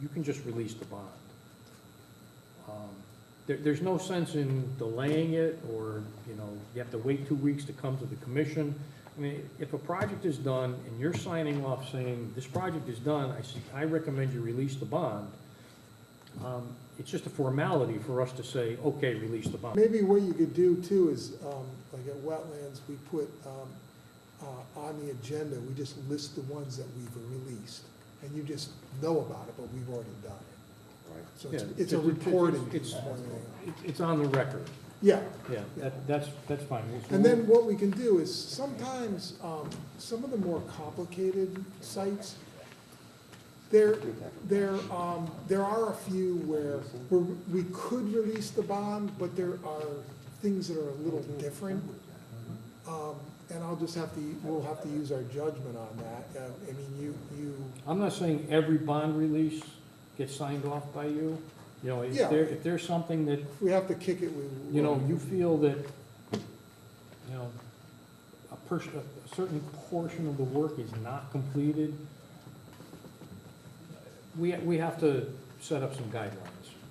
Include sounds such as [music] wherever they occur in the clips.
you can just release the bond. Um, There, there's no sense in delaying it, or, you know, you have to wait two weeks to come to the commission. I mean, if a project is done and you're signing off saying, this project is done, I see, I recommend you release the bond, um, it's just a formality for us to say, okay, release the bond. Maybe what you could do too is, um, like at wetlands, we put, um, uh, on the agenda, we just list the ones that we've released. And you just know about it, but we've already done it. Right. So it's, Yeah, it's a it's- it's- reporting. it's- piece more than anything. It's, it's on the record, Yeah, yeah, that, that's, that's fine. So and then what we can do is sometimes, um, some of the more complicated sites, they're, There, um, there are a few where, where we could release the bond, but there are things that are a little different. Um, and I'll just have to, we'll have to use our judgment on that. Uh, I mean, you, you, I'm not saying every bond release gets signed off by you, you know, if Yeah. there, if there's something that, if we have to kick it, we will. you know, you feel that, you know, a person, a certain portion of the work is not completed, we, we have to set up some guidelines.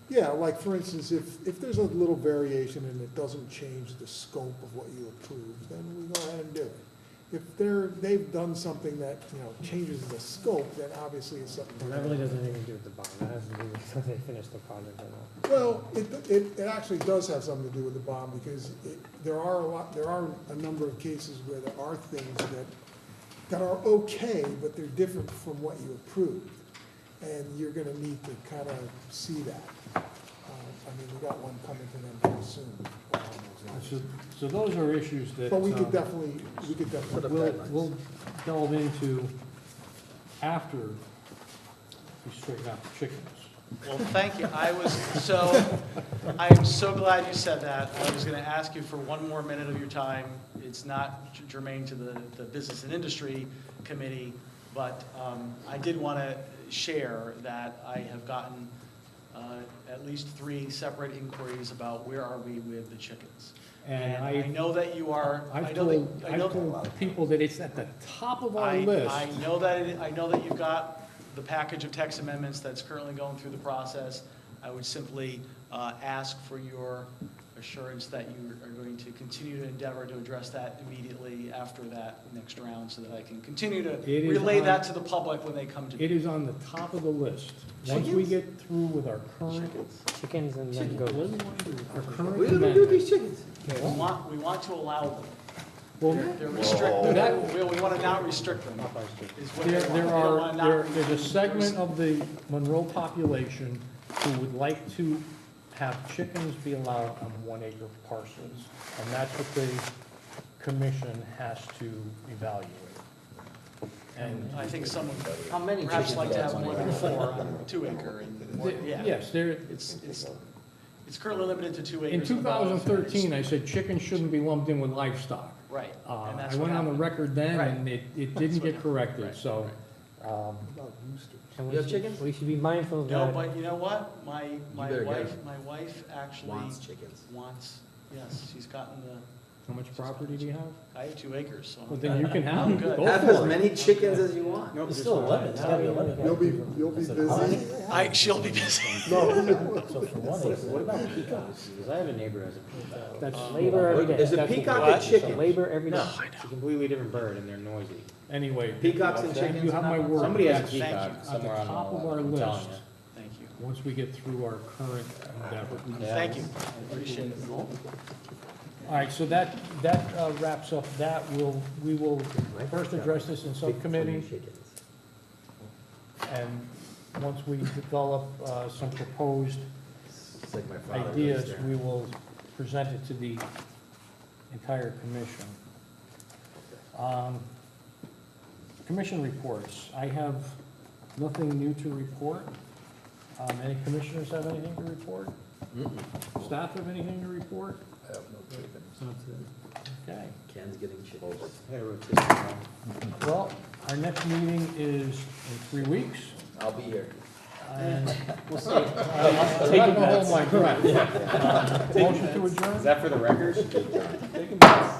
Yeah, like for instance, if, if there's a little variation and it doesn't change the scope of what you approve, then we go ahead and do it. If they're, they've done something that, you know, changes the scope, then obviously it's something. And that really doesn't have anything to do with the bond, that has to do with [laughs] whether they finish the project or not. Well, it, it, it actually does have something to do with the bond, because it, there are a lot, there are a number of cases where there are things that, that are okay, but they're different from what you approved. And you're gonna need to kind of see that. Uh, I mean, we got one coming to them pretty soon. So, so those are issues that. But we um, could definitely, we could definitely. We'll, we'll delve into after we straighten out the chickens. Well, thank you. I was, so, I am so glad you said that. I was going to ask you for one more minute of your time. It's not germane to the, the Business and Industry Committee, but um, I did want to share that I have gotten uh, at least three separate inquiries about where are we with the chickens. And I I, know that you are, I I've know told, that, I know. I've told people that it's at the top of our I- list. I know that, it- I know that you've got the package of text amendments that's currently going through the process. I would simply uh, ask for your assurance that you are going to continue to endeavor to address that immediately after that next round, so that I can continue to It is relay on- that to the public when they come to It me. is on the top of the list. Once we Chickens? get through with our current, Chickens and then goats. our We current don't do amendment. these chickens. We want, we want to allow them. Well, They're restricted, we, we want to not restrict them, is what they there, want. there They don't are, wanna not there, re- there's a segment of the Monroe population who would like to have chickens be allowed on one acre parcels. And that's what the commission has to evaluate. And I think someone How many perhaps like to have more than four on a two acre and, more- yeah. Yes, there, It's, it's, it's currently limited to two in acres. two the bottom. thousand thirteen, I said chickens shouldn't be lumped in with livestock. Right, Uh, and I that's what went on the happened. record then, and it, [laughs] it didn't what get happened. corrected, Right, so, um, And we You have should- chickens? We should be mindful of No, that. but you know what? My, my better get wife, it. my wife actually Wants chickens. wants, yes, she's gotten the, how much property do you have? I have two acres, so. Well, I'm- then you can I'm have, good. go Have as for it. many chickens as you want. Nope, It's still 11, it's gotta be 11. You'll be, you'll be busy. I, she'll be busy. No. So for one acre, what about peacocks? Because I have a neighbor who has a peacock. That's, Labor every day. Is a That's what peacock a What? we- chicken? Labor every day. No, it's a completely different bird and they're noisy. anyway, Peacocks and You have you chickens? have my word. Somebody has a That's Thank peacock you. somewhere At on the the top of wall, our I'm telling list. you. Thank you. Once we get through our current endeavor. Yeah. Thank you. I Appreciate it. All right, so that, that uh, wraps up that. We'll, we will first address this in subcommittee. And once we develop uh, some proposed It's like my father lives ideas, there. we will present it to the entire commission. Um, Commission reports, I have nothing new to report. Um, Any commissioners have anything to report? Staff have anything to report? Okay. Ken's getting chickens. Hey, we're just, uh, Well, our next meeting is in three weeks, I'll be here. and We'll see. I'm not gonna hold my breath. Uh, Motion to adjourn? [laughs] Is that for the record?